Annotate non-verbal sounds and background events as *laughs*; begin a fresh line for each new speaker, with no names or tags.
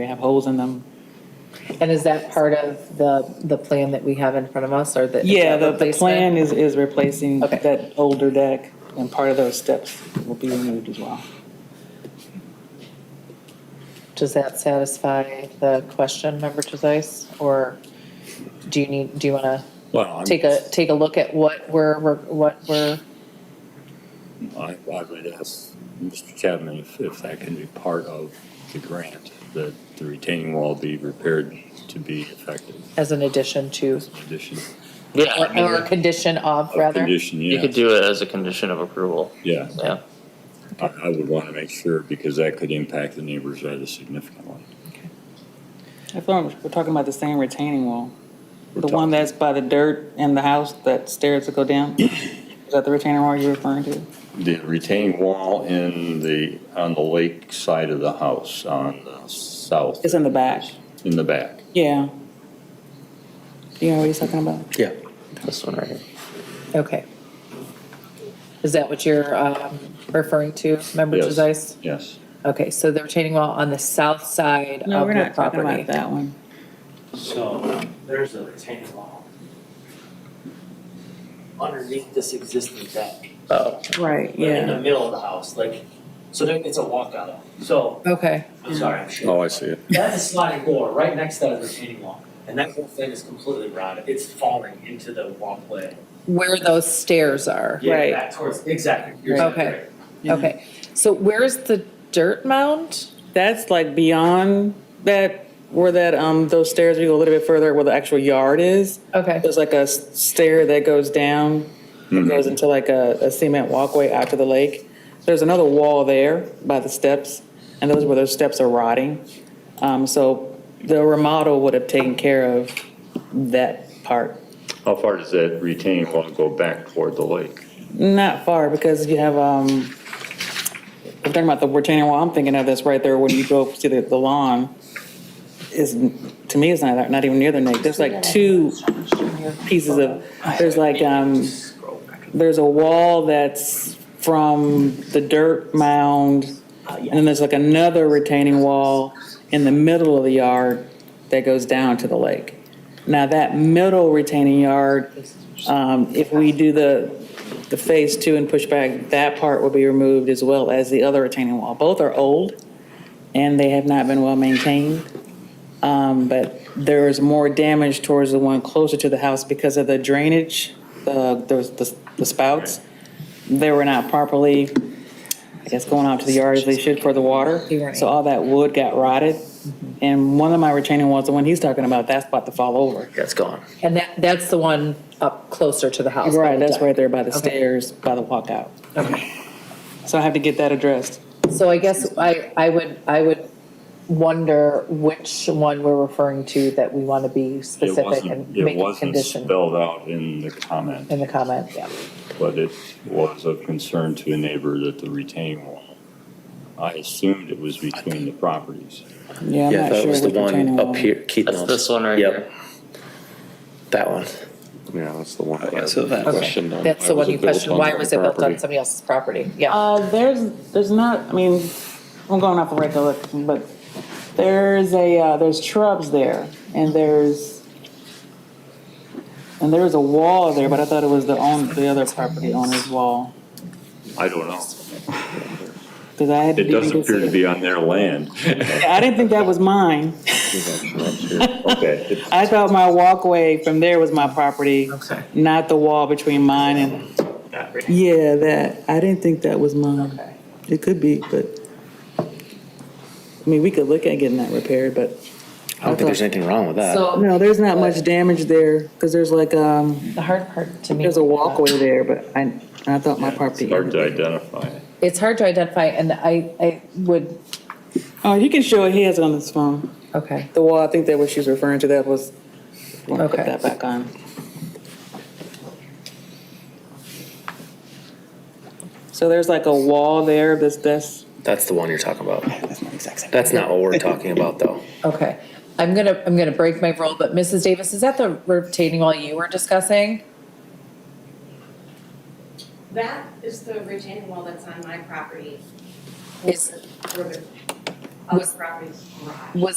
They have holes in them.
And is that part of the, the plan that we have in front of us or the? is
Yeah,
that
the, the
replacement?
plan is, is replacing
Okay.
that older deck, and part of those steps will be removed as well.
Does that satisfy the question, Member Trevise? Or do you need, do you want to
Well, I'm-
take a, take a look at what we're, we're- what we're,
I, I would ask Mr. Chapman if, if that can be part of the grant, that the retaining wall be repaired to be effective
as an addition to,
as an addition.
Yeah, I
or
mean,
or a condition of,
A
rather?
condition,
you
yeah,
could do it as a condition of approval.
yeah.
Yeah.
I, I would want to make sure because that could impact the neighbors rather significantly.
I thought we're talking about the same retaining wall,
We're
the one
talking-
that's by the dirt in the house, that stairs that go down. Is that the retaining wall you're referring to?
The retaining wall in the, on the lake side of the house on the south,
It's in the back.
in the back.
Yeah. Do you know what he's talking about?
Yeah.
This one right here.
Okay. Is that what you're um, referring to, Member
Yes.
Trevise?
Yes.
Okay, so the retaining wall on the south side of the property?
No, we're not talking about that one.
So there's a retaining wall underneath this existing deck,
Oh,
Right,
but in the middle of the house, like, so there, it's a walkout. So,
Okay,
I'm sorry, I'm sure.
Oh, I see it.
That's a sliding door right next to that retaining wall, and that whole thing is completely rotted. It's falling into the walkway.
where those stairs are.
Yeah,
Right.
Back towards, exactly. You're
Okay.
right.
Okay, so where's the dirt mound?
That's like beyond that, where that, um, those stairs, we go a little bit further where the actual yard is.
Okay,
There's like a s- stair that goes down, that goes into like a, a cement walkway out to the lake. There's another wall there by the steps, and those where those steps are rotting. Um, so the remodel would have taken care of that part.
How far does that retaining wall go back toward the lake?
Not far, because you have, um, I'm talking about the retaining wall, I'm thinking of this right there when you go to the, the lawn. Is, to me, it's not, not even near the neck. There's like two pieces of, there's like, um,
Scroll back.
there's a wall that's from the dirt mound,
Uh,
and then there's like another retaining wall in the middle of the yard that goes down to the lake. Now, that middle retaining yard, um, if we do the, the phase two and push back, that part will be removed as well as the other retaining wall. Both are old, and they have not been well maintained. Um, but there is more damage towards the one closer to the house because of the drainage, uh, those, the the spouts. They were not properly, I guess, going out to the yard as they should for the water. So all that wood got rotted. And one of my retaining walls, the one he's talking about, that's about to fall over.
that's gone.
and that, that's the one up closer to the house.
Right, that's right there by the
Okay.
stairs, by the walkout. So I have to get that addressed.
So I guess I, I would, I would wonder which one we're referring to that we want to be
It
specific
wasn't-
and make a
It wasn't
condition
spelled out in the comment,
in the comment, yeah.
but it was of concern to a neighbor that the retaining wall, I assumed it was between the properties.
Yeah, I'm
Yeah,
not
that
sure
was the
what retaining
one
wall.
up here, Keith
That's
knows.
this one right
Yep,
here.
That one.
Yeah, that's the one.
Okay, so that-
Okay, that's the one you questioned, why was it built on somebody else's property? Yeah,
Uh, there's, there's not, I mean, I'm going off the recollection, but there's a, uh, there's shrubs there, and there's, and there's a wall there, but I thought it was the own, the other property owner's wall,
I don't know.
because I had.
It does
didn't
appear to
see it.
be on their
*laughs*
land.
I didn't think that was mine.
Okay.
I thought my walkway from there was my property, not the wall between mine and. Yeah, that, I didn't think that was mine. It could be, but, I mean, we could look at getting that repaired, but.
I don't think there's anything wrong with that.
so
No, there's not much damage there, because there's like, um,
the hard part to me.
there's a walkway there, but I, I thought my property.
Hard to identify it.
It's hard to identify and I, I would,
Oh, you can show it, he has it on his phone.
okay,
The wall, I think that what she's referring to, that was, we'll put
Okay.
that back on. So there's like a wall there, this, that's,
That's the one you're talking about.
that's not exact same.
That's not what we're talking about, though.
okay. I'm gonna, I'm gonna break my rule, but Mrs. Davis, is that the retaining wall you were discussing?
That is the retaining wall that's on my property.
Is-
Oh, Where the other property's garage.
Was